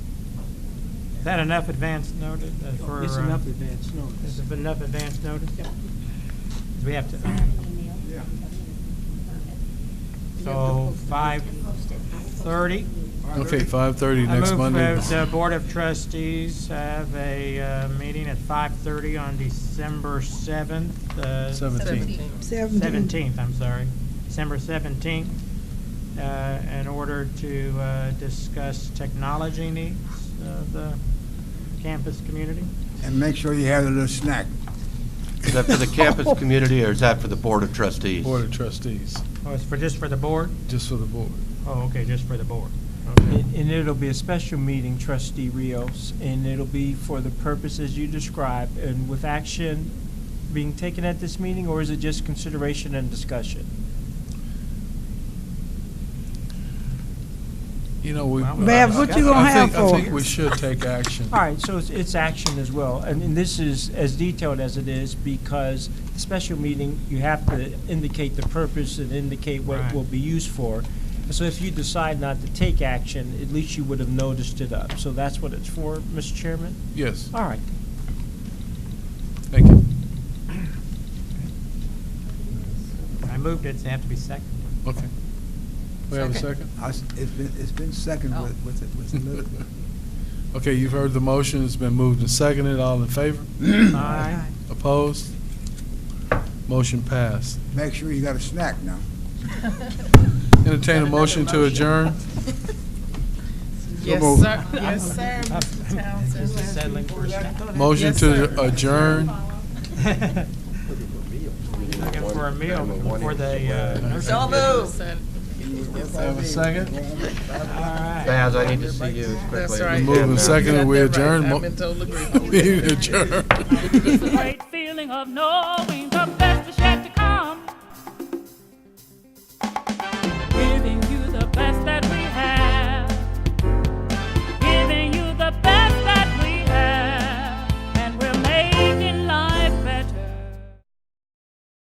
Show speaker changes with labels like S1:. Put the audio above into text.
S1: Is that enough advance notice uh, for?
S2: It's
S1: uh,
S2: enough advance
S1: Is
S2: notice.
S1: it enough advance notice?
S2: Yeah.
S1: We have to,
S2: Yeah.
S1: so five thirty.
S3: Okay, five thirty
S1: I
S3: next
S1: move
S3: Monday.
S1: that the Board of Trustees have a uh, meeting at five thirty on December seventh, uh,
S3: Seventeenth.
S1: seventeenth, I'm sorry, December seventeenth, uh, in order to, uh, discuss technology needs of the campus community.
S4: And make sure you have a little snack.
S5: Is that for the campus community, or is that for the Board of Trustees?
S3: Board of Trustees,
S1: Oh, it's for, just for the board?
S3: just for the board.
S1: Oh, okay, just for the board. Okay.
S2: And and it'll be a special meeting, trustee Rios, and it'll be for the purposes you described, and with action being taken at this meeting, or is it just consideration and discussion?
S3: You know, we.
S1: Well,
S6: Bev, what you gonna
S3: I
S6: have
S3: think-
S6: for?
S3: I think we should take action.
S2: All right, so it's, it's action as well, and, and this is as detailed as it is, because the special meeting, you have to indicate the purpose and indicate what it
S1: Right.
S2: will be used for. So if you decide not to take action, at least you would have noticed it up, so that's what it's for, Mr. Chairman?
S3: Yes,
S2: All right,
S3: thank you.
S1: I moved it, so it have to be seconded.
S3: Okay. We have a second?
S7: Second.
S4: I s- It's been, it's been second with, with it- with a little.
S3: Okay, you've heard the motion. It's been moved and seconded. All in favor?
S1: Aye.
S3: Opposed? Motion passed.
S4: Make sure you got a snack now.
S3: Entertain a motion to adjourn?
S7: Yes, sir. Yes, sir, Mr. Townsend.
S1: Settling for a second.
S3: Motion
S7: Yes,
S3: to
S7: sir.
S3: adjourn?
S1: Looking for a meal before they, uh, nursery.
S7: So moved.
S3: Have a second?
S1: All right.
S5: Baz, I need to see you as quickly as
S7: That's
S5: you
S7: right.
S5: can.
S3: Move and
S5: now.
S3: second.
S7: You got
S3: we
S7: that right.
S3: adjourn. Mo-
S7: I'm in total agreement.
S3: We adjourn.
S8: great feeling of knowing